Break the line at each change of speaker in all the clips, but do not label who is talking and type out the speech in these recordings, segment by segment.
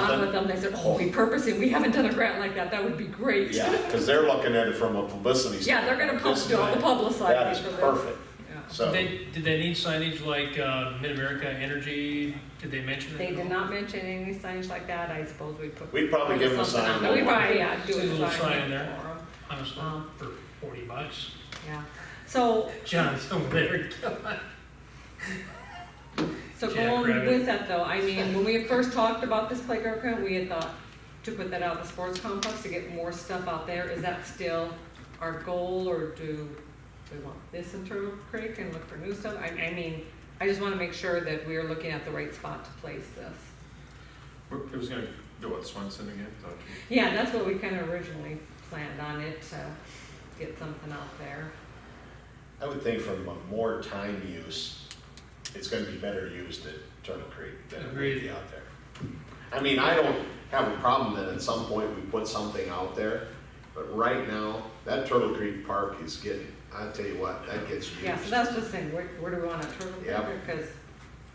them, they said, oh, repurposing, we haven't done a grant like that, that would be great.
Yeah, because they're looking at it from a publicity.
Yeah, they're gonna
standpoint.
pub- they'll publicize
That
it
is
for them.
perfect,
Yeah.
so.
They, did they need signage like uh, Mid-America Energy? Did they mention that?
They did not mention any signs like that, I suppose we put.
We'd probably give them a
something
sign.
on there. We probably, yeah, do
Just a
a
little sign
sign
in
for
there.
them,
Honestly,
Um,
for forty bucks.
yeah. So,
John's over there.
So
Jack
going
Rabbit.
with that though, I mean, when we had first talked about this playground grant, we had thought to put that out of the sports complex to get more stuff out there. Is that still our goal or do we want this in Turtle Creek and look for new stuff? I, I mean, I just wanna make sure that we are looking at the right spot to place this.
It was gonna go with Swenson again, Doc?
Yeah, that's what we kinda originally planned on it, to get something out there.
I would think from a more time use, it's gonna be better used at Turtle Creek than it would be
Agreed.
out there. I mean, I don't have a problem that at some point we put something out there, but right now, that Turtle Creek Park is getting, I tell you what, that gets used.
Yeah, so that's just saying, where, where do we want it, Turtle Creek?
Yeah.
Because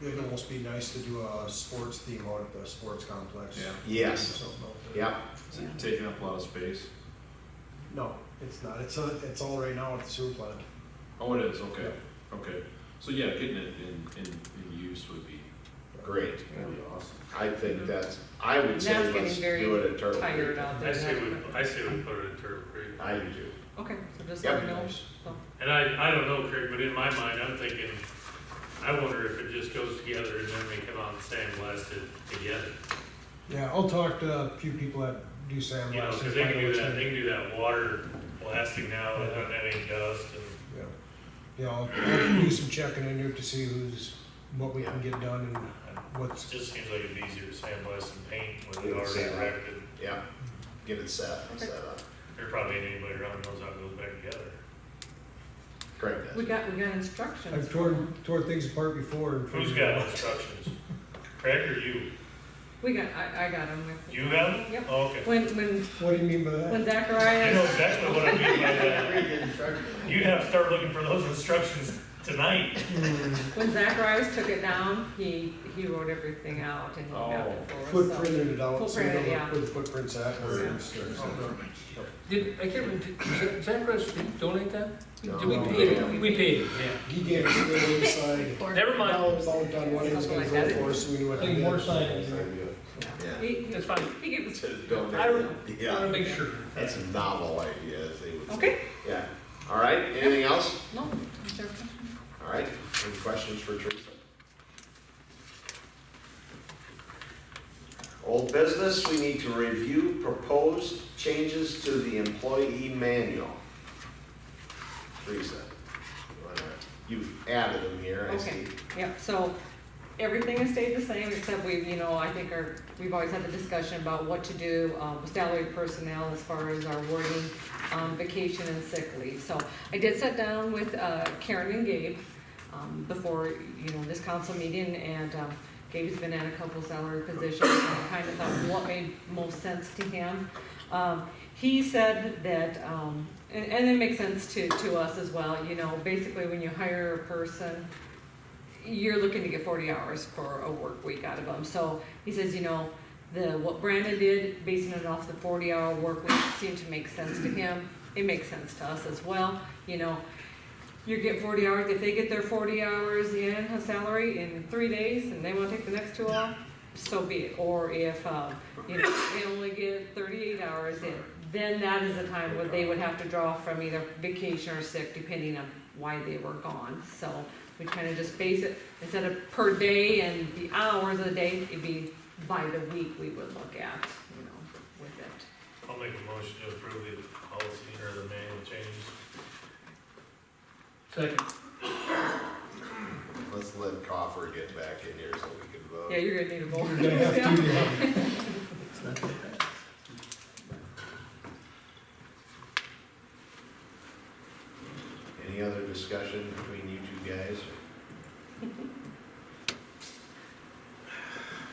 It'd almost be nice to do a sports theme out at the sports complex.
Yeah.
Yes,
Something out there.
yep,
Is it taking up a lot of space?
No, it's not. It's, a- it's all right now at the sewer plant.
Oh, it is, okay, okay. So yeah, getting it in, in, in use would be,
great.
would be awesome.
I think that's, I would say
That's getting
let's
very
do it at Turtle
tired
Creek.
out there.
I say we, I say we put it in Turtle Creek.
I do too.
Okay, so just
Yep.
let me know. Oh, So-
And I, I don't know, Craig, but in my mind, I'm thinking, I wonder if it just goes together and then we come out and sandblast it together.
Yeah, I'll talk to a few people that do
You know,
sandblasting.
cause they can do that, they can do that water blasting now without any dust and,
Yeah, yeah, I'll I'll do some checking in here to see who's, what we can get done and
it
what's,
just seems like it'd be easier to sandblast and paint with it
Sand.
already erected.
Yep, get it set, set up.
There probably ain't anybody around that knows how it goes back together.
Craig
We
does.
got, we got instructions.
I've torn, torn things apart before. and
Who's
figured
got
it out.
instructions? Craig or you?
We got, I, I got them.
You got them?
Yep.
Oh, Okay.
When, when,
What do you mean by that?
when
I know
Zacharias,
exactly what I mean by that. You'd have to start looking for those instructions tonight.
when Zacharias took it down, he, he wrote everything out and he mapped it for us. so-
Footprinted it out, so you know
Footprinted, yeah.
where the footprints at. and
Yeah.
everything.
Did, I can't remember, did Zacharias donate that?
No.
Did we
No.
pay it? We paid it,
He gave us the inside.
yeah. Never mind.
Dollars all done, what he was gonna go for, so we knew what to
Any
do.
more signage?
Yeah. He, he-
That's fine.
he gave us,
I don't- I
Yeah,
wanna make sure.
that's a novel idea, as they would say.
okay,
Yeah, all right, anything else?
no, is there a question?
All right, any questions for Teresa? Old business, we need to review proposed changes to the employee manual. Teresa, you wanna- you've added them here, I
Okay,
see.
yep, so everything has stayed the same, except we've, you know, I think our, we've always had the discussion about what to do, um, with salaried personnel as far as our wording, um, vacation and sick leave. So I did sit down with, uh, Karen and Gabe, um, before, you know, this council meeting, and, um, Gabe's been at a couple salary positions, and I kind of thought what made most sense to him. Um, he said that, um, and, and it makes sense to, to us as well, you know, basically when you hire a person, you're looking to get forty hours for a work week out of them. So he says, you know, the, what Brandon did, basing it off the forty hour work week seemed to make sense to him. It makes sense to us as well, you know. You get forty hours, if they get their forty hours in a salary in three days and they wanna take the next two off, so be it. Or if, um, you know, they only get thirty-eight hours in, then that is the time where they would have to draw from either vacation or sick, depending on why they were gone. So we kind of just base it, instead of per day and the hours of the day, it'd be by the week we would look at, you know, with it.
I'll make a motion to approve the policy or the manual changes.
Second.
Let's let Coffer get back in here so we can vote.
Yeah, you're gonna need a vote.
You're gonna have to do that.
Any other discussion between you two guys?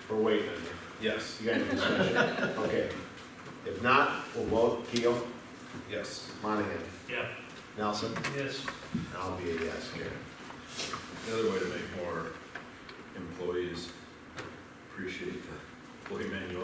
We're waiting on you.
Yes.
You got any discussion? Okay. If not, we'll vote. Keel,
Yes.
Monahan,
Yeah.
Nelson,
Yes.
I'll be a yes, Karen.
Another way to make more employees appreciate the employee manual